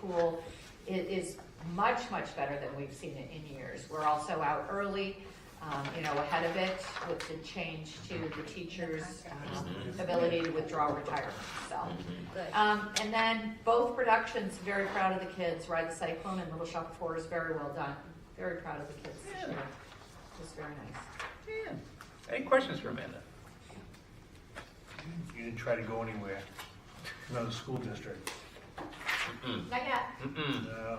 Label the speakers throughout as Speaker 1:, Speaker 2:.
Speaker 1: pool i- is much, much better than we've seen it in years. We're also out early, um, you know, ahead of it with the change to the teacher's um, ability to withdraw retirement, so. Um, and then both productions, very proud of the kids, Ride the Cyclone and Little Shop of Horrors, very well done. Very proud of the kids this year. It was very nice.
Speaker 2: Yeah. Any questions for Amanda?
Speaker 3: You didn't try to go anywhere, another school district.
Speaker 1: Not yet.
Speaker 2: Mm-mm.
Speaker 3: No,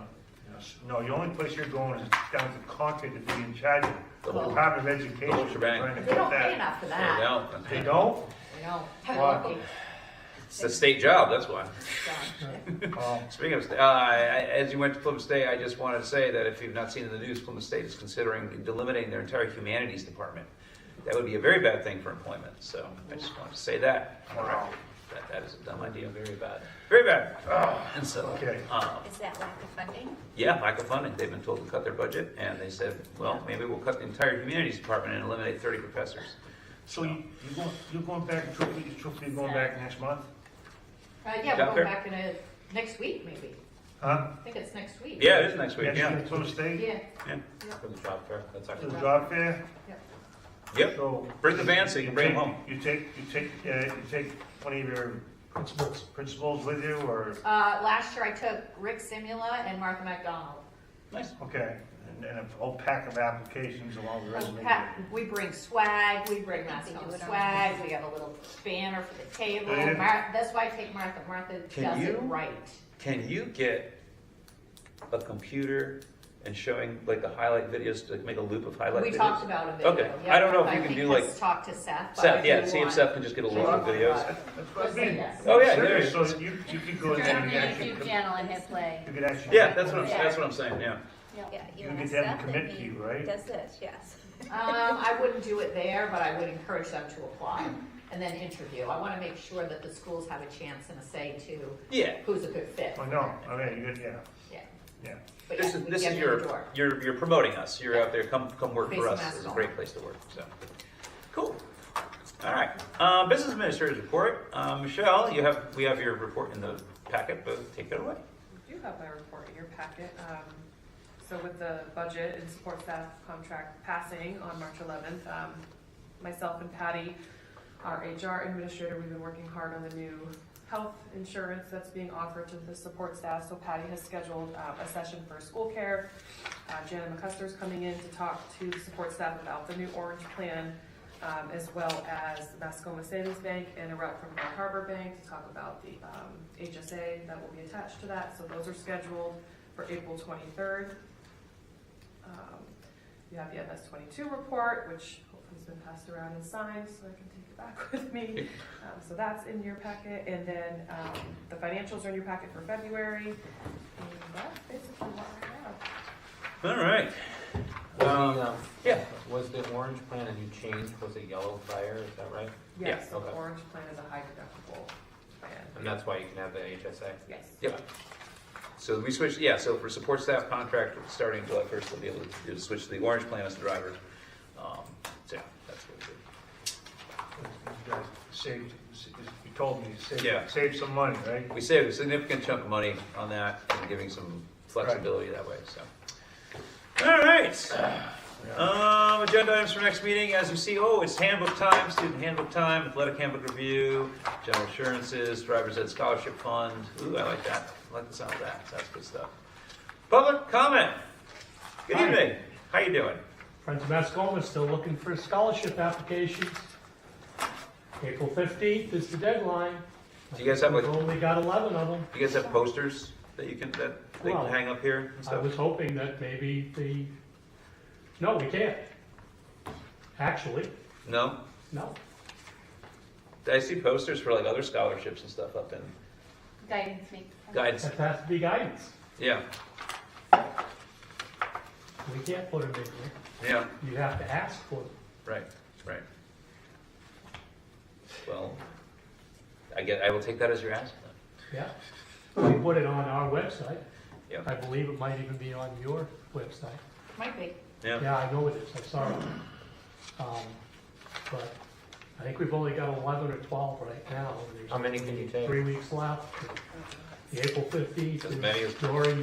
Speaker 3: yes. No, the only place you're going is down to Concord to be in charge of the Department of Education.
Speaker 2: whole shebang.
Speaker 3: Trying to
Speaker 1: They don't
Speaker 3: get
Speaker 1: pay
Speaker 3: that.
Speaker 1: enough for
Speaker 2: There you
Speaker 1: that.
Speaker 2: go.
Speaker 3: They don't?
Speaker 1: They don't.
Speaker 3: Wow.
Speaker 1: Lucky.
Speaker 2: It's a state job, that's why.
Speaker 1: So,
Speaker 3: Oh,
Speaker 2: Speaking of, sta- uh, I- as you went to Plymouth State, I just wanted to say that if you've not seen in the news, Plymouth State is considering delimiting their entire humanities department. That would be a very bad thing for employment, so I just wanted to say that. on the
Speaker 3: Wow.
Speaker 2: record. That, that is a dumb idea, very bad, very bad. Oh, And so,
Speaker 3: Okay.
Speaker 2: um,
Speaker 4: Is that lack of funding?
Speaker 2: yeah, lack of funding, they've been told to cut their budget, and they said, well, maybe we'll cut the entire humanities department and eliminate thirty professors.
Speaker 3: So you, you going, you're going back, truthfully, truthfully, you're going back next month?
Speaker 1: Uh, yeah,
Speaker 2: Got
Speaker 1: we're
Speaker 2: there?
Speaker 1: going back in a, next week maybe.
Speaker 3: Huh?
Speaker 1: I think it's next week.
Speaker 2: Yeah, it is next week,
Speaker 3: Next
Speaker 2: yeah.
Speaker 3: year, Plymouth State,
Speaker 1: Yeah.
Speaker 2: Yeah. For the job fair, that's
Speaker 3: to the
Speaker 2: actually.
Speaker 3: job fair?
Speaker 2: Yep,
Speaker 3: So
Speaker 2: bring the van so you can bring them
Speaker 3: take-
Speaker 2: home.
Speaker 3: You take, you take, uh, you take one of your principals, principals with you, or,
Speaker 1: Uh, last year I took Rick Simula and Martha McDonald.
Speaker 2: Nice.
Speaker 3: okay, and- and a whole pack of applications along the resume.
Speaker 1: Pat- We bring swag, we bring
Speaker 4: I think they do
Speaker 1: Masco
Speaker 4: it on-
Speaker 1: swag, we have a little banner for the table.
Speaker 3: Yeah.
Speaker 1: Mar- That's why I take Martha. Martha
Speaker 2: Can
Speaker 1: does it
Speaker 2: you?
Speaker 1: right.
Speaker 2: Can you get a computer and showing like the highlight videos to like, make a loop of highlight
Speaker 1: We
Speaker 2: videos?
Speaker 1: talked about a video.
Speaker 2: Okay.
Speaker 1: yeah,
Speaker 2: I don't know if you
Speaker 1: I
Speaker 2: can
Speaker 1: think
Speaker 2: do, like,
Speaker 1: let's Talk to Seth. but
Speaker 2: Seth,
Speaker 1: if
Speaker 2: yeah,
Speaker 1: you
Speaker 2: see if
Speaker 1: want-
Speaker 2: Seth can just get a loop of
Speaker 1: Sure.
Speaker 2: videos.
Speaker 3: That's what I
Speaker 1: Let's
Speaker 3: mean.
Speaker 1: do this.
Speaker 2: Oh, yeah, there
Speaker 3: Serious,
Speaker 2: it is.
Speaker 3: So you, you could go
Speaker 4: Turn
Speaker 3: in
Speaker 4: on
Speaker 3: there
Speaker 4: the
Speaker 3: and actually.
Speaker 4: YouTube channel and hit play.
Speaker 3: You could actually.
Speaker 2: Yeah, that's what I'm, that's what I'm saying, yeah.
Speaker 4: Yeah,
Speaker 3: You
Speaker 4: and that's
Speaker 3: get them
Speaker 4: that
Speaker 3: to commit
Speaker 4: he
Speaker 3: to you, right?
Speaker 4: Does this, yes.
Speaker 1: Um, I wouldn't do it there, but I would encourage them to apply and then interview. I want to make sure that the schools have a chance and a say to
Speaker 2: Yeah.
Speaker 1: who's a good fit.
Speaker 3: I know, Oh, I mean, you could, yeah,
Speaker 1: Yeah.
Speaker 3: yeah.
Speaker 1: But
Speaker 2: This
Speaker 1: yeah,
Speaker 2: is,
Speaker 1: we
Speaker 2: this
Speaker 1: get
Speaker 2: is
Speaker 1: them in the
Speaker 2: your,
Speaker 1: door.
Speaker 2: you're, you're promoting us. You're out there, come, come work
Speaker 1: Face
Speaker 2: for us.
Speaker 1: mask
Speaker 2: It's a
Speaker 1: on.
Speaker 2: great place to work, so. Cool. All right. Uh, business administrator's report. Uh, Michelle, you have, we have your report in the packet, but take it away.
Speaker 5: I do have my report in your packet. Um, So with the budget and support staff contract passing on March 11th, um, myself and Patty, our HR administrator, we've been working hard on the new health insurance that's being offered to the support staff. So Patty has scheduled uh, a session for school care. Uh, Jana McCuster's coming in to talk to the support staff about the new orange plan, um, as well as Mascoma Savings Bank and a rep from Bar Harbor Bank to talk about the um, HSA that will be attached to that. So those are scheduled for April 23rd. Um, You have the MS 22 report, which hopefully has been passed around and signed, so I can take it back with me. Um, So that's in your packet, and then um, the financials are in your packet for February. And that's basically what I have.
Speaker 2: All right.
Speaker 6: Was the, um,
Speaker 2: Yeah.
Speaker 6: was the orange plan a new change? Was it yellow fire? Is that right?
Speaker 5: Yes,
Speaker 6: Yeah,
Speaker 5: the
Speaker 6: okay.
Speaker 5: orange plan is a high deductible plan.
Speaker 6: And that's why you can have the HSA?
Speaker 5: Yes.
Speaker 2: Yep. So we switched, yeah, so for support staff contract, starting July first, they'll be able to do- switch to the orange plan as the driver. Um, So, yeah, that's what we
Speaker 3: You guys Saved, you told me, you
Speaker 2: Yeah.
Speaker 3: saved, saved some money, right?
Speaker 2: did. We saved a significant chunk of money on that, and giving some flexibility that way, so. All right. Um, agenda items for next meeting, as you see, oh, it's handbook time, student handbook time, athletic handbook review, general assurances, driver's ed scholarship fund. Ooh, I like that. I like the sound of that. That's good stuff. Public comment. Good
Speaker 7: Hi.
Speaker 2: evening. How you doing?
Speaker 7: Friends of Mascoma is still looking for scholarship applications. April 15th is the deadline.
Speaker 2: Do you guys have, like-
Speaker 7: We've only got 11 of them.
Speaker 2: You guys have posters that you can, that they can
Speaker 7: Well,
Speaker 2: hang up here and
Speaker 7: I
Speaker 2: stuff?
Speaker 7: was hoping that maybe the, no, we can't. Actually,
Speaker 2: No?
Speaker 7: no.
Speaker 2: I see posters for like other scholarships and stuff up in
Speaker 4: Guidance me.
Speaker 2: guides.
Speaker 7: That has to be guidance.
Speaker 2: Yeah,
Speaker 7: We can't put them in here.
Speaker 2: yeah,
Speaker 7: You have to ask for them.
Speaker 2: right, right. Well, I get, I will take that as your ask then.
Speaker 7: Yeah. We put it on our website.
Speaker 2: Yeah,
Speaker 7: I believe it might even be on your website.
Speaker 1: Might be.
Speaker 2: yeah,
Speaker 7: Yeah, I know it is, I'm sorry. Um, But I think we've only got 11 or 12 right now. and there's
Speaker 6: How many can you take?
Speaker 7: Three weeks left. the April fifteenth
Speaker 2: As many as-
Speaker 7: is Dory